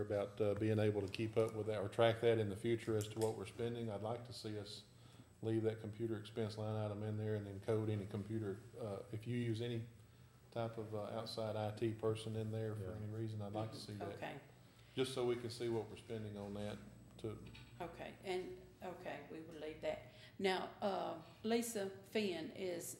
about uh, being able to keep up with that or track that in the future as to what we're spending. I'd like to see us leave that computer expense line item in there and then code any computer, uh, if you use any type of uh, outside IT person in there for Yeah. any reason, I'd like to see that. Okay, Just so we can see what we're spending on that to, okay, and, okay, we will leave that. Now, uh, Lisa Finn is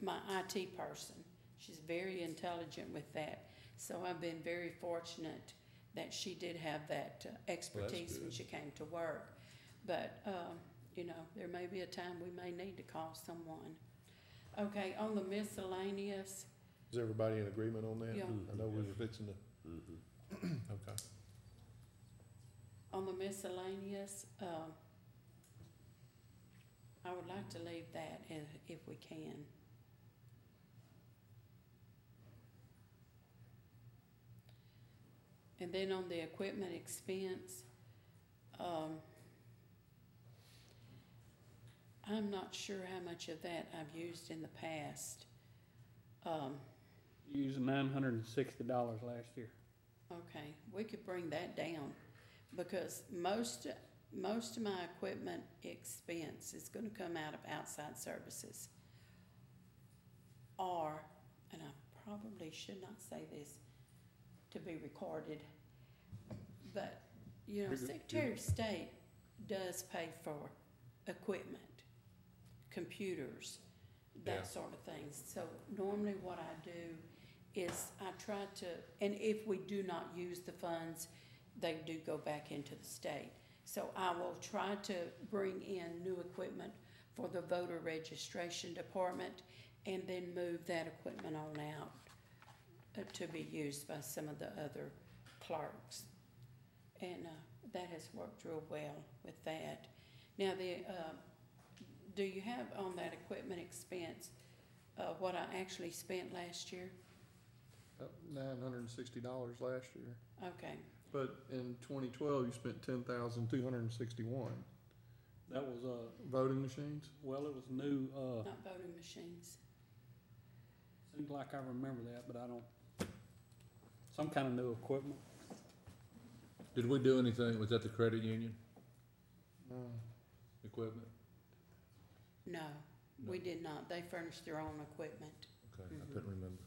my IT person. She's very intelligent with that, so I've been very fortunate that she did have that uh, expertise when good. she came to work. But, um, you know, there may be a time we may need to call someone. Okay, on the miscellaneous, is everybody in agreement on that? Yeah. Mm-hmm. I know we were fixing to, Mm-hmm. Mhm. okay. on the miscellaneous, um, I would like to leave that if, if we can. And then on the equipment expense, um, I'm not sure how much of that I've used in the past. Um, Used nine hundred and sixty dollars last year. Okay, we could bring that down, because most, most of my equipment expense is gonna come out of outside services. Or, and I probably should not say this to be recorded, but, you know, You're good. Secretary of State does pay for equipment, computers, Yeah. that sort of thing. So normally what I do is I try to, and if we do not use the funds, they do go back into the state. So I will try to bring in new equipment for the voter registration department and then move that equipment on out uh, to be used by some of the other clerks. And, uh, that has worked real well with that. Now, the, uh, do you have on that equipment expense, uh, what I actually spent last year? Nine hundred and sixty dollars last year, Okay, but in twenty twelve, you spent ten thousand two hundred and sixty-one. That was, uh, Voting machines? well, it was new, uh, not voting machines. seems like I remember that, but I don't, some kind of new equipment. Did we do anything, was that the credit union No. Mm-hmm. equipment? No, we No. did not. They furnished their own equipment. Okay, Mm-hmm. I couldn't remember.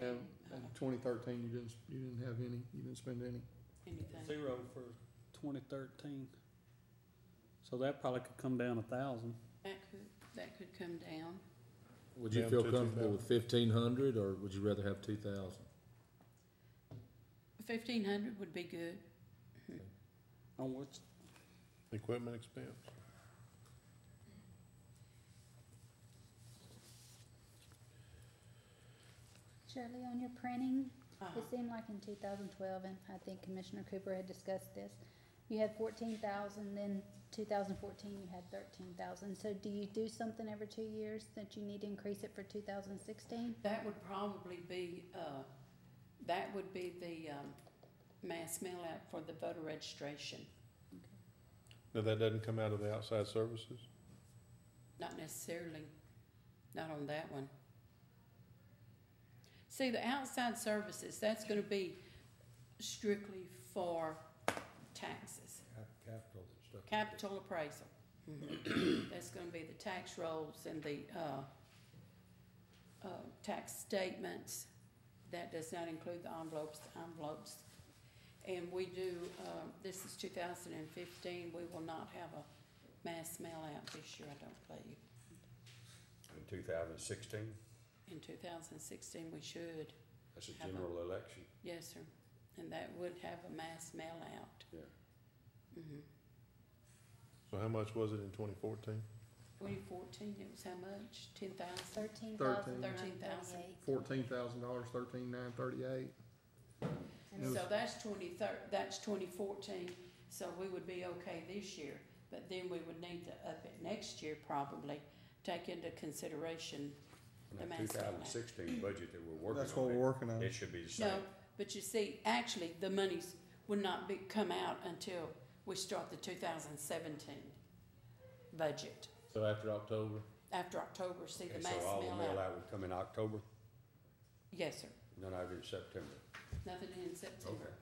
And Uh, in twenty thirteen, you didn't, you didn't have any, you didn't spend any. Anything. Zero for twenty thirteen. So that probably could come down a thousand. That could, that could come down. Would you Down feel to comfortable 2,000. with fifteen hundred, or would you rather have two thousand? Fifteen hundred would be good. On which, Equipment expense? Shirley, on your printing, Uh-huh. it seemed like in two thousand twelve, and I think Commissioner Cooper had discussed this, you had fourteen thousand, then two thousand fourteen, you had thirteen thousand. So do you do something every two years that you need to increase it for two thousand sixteen? That would probably be, uh, that would be the, um, mass mail out for the voter registration, No, that doesn't come out of the outside services? not necessarily, not on that one. See, the outside services, that's gonna be strictly for taxes. Capital and stuff. Capital appraisal. That's gonna be the tax rolls and the, uh, uh, tax statements. That does not include the envelopes, envelopes. And we do, uh, this is two thousand and fifteen, we will not have a mass mail out this year, I don't believe. In two thousand sixteen, In two thousand sixteen, we should, that's a Have a- general election, yes, sir. And that would have a mass mail out. yeah. Mhm. So how much was it in twenty fourteen? 2014, it was how much? 10,000? Thirteen thousand nine Thirteen thousand. thirty-eight. Fourteen thousand dollars, thirteen nine thirty-eight. And It So was- that's twenty thir- that's twenty fourteen, so we would be okay this year, but then we would need to up it next year probably, take into consideration, The And that two mass ballot. thousand sixteen budget that we're working on. That's what we're working on. It should be the same. no, but you see, actually, the monies would not be, come out until we start the two thousand seventeen budget. So after October, After October, see the Okay, mass so all the mail mail out. out would come in October, Yes, sir, none out in September. nothing in September.